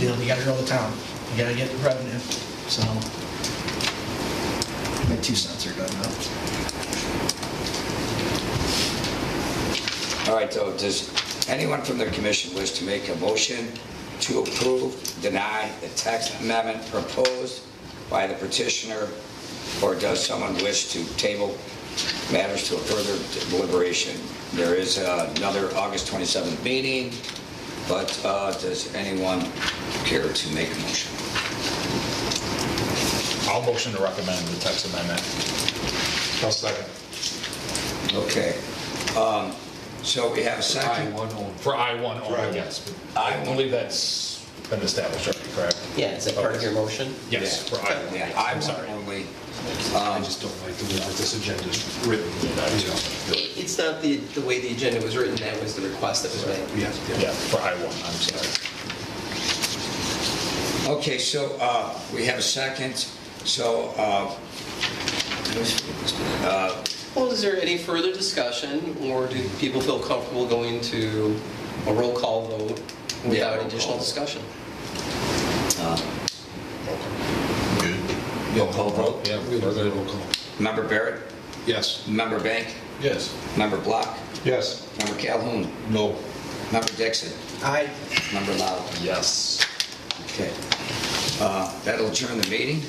do. We gotta grow the town. We gotta get revenue, so. My two cents are done now. All right, so does anyone from the commission wish to make a motion to approve, deny the text amendment proposed by the petitioner? Or does someone wish to table matters to a further deliberation? There is another August 27th meeting, but uh, does anyone care to make a motion? I'll motion to recommend the text amendment. I'll second. Okay. Um, So we have a second. For I-1 Right. only, yes. I I-1. believe that's been established already, correct? Yeah, is that part of your motion? Yes, for I-1. Yeah, I'm I'm sorry. only, I just don't like the way that this agenda's written. It- It's not the, the way the agenda was written, that was the request that was made. Yeah, Yeah, for I-1, I'm sorry. Okay, so uh, we have a second, so, uh, uh, Well, is there any further discussion, or do people feel comfortable going to a roll call Yeah, vote roll without call. additional discussion? roll call vote. Yeah, further roll call. Member Barrett, Yes. member Bank, Yes. member Block, Yes. member Calhoun, No. member Dixon, I, member Lau. Yes. Okay. Uh, That'll adjourn the meeting.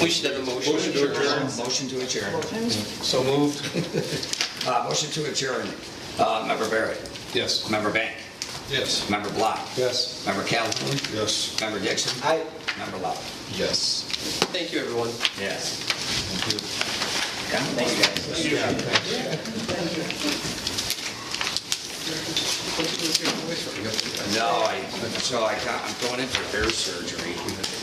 We should have a motion. Motion to adjourn. Motion to adjourn. So moved? Uh, Motion to adjourn. Uh, Member Barrett, Yes. member Bank, Yes. member Block, Yes. member Calhoun, Yes. member Dixon, I, member Lau. Yes. Thank you, everyone. Yes. Thank you. guys. No, I, so I got, I'm going in for ear surgery.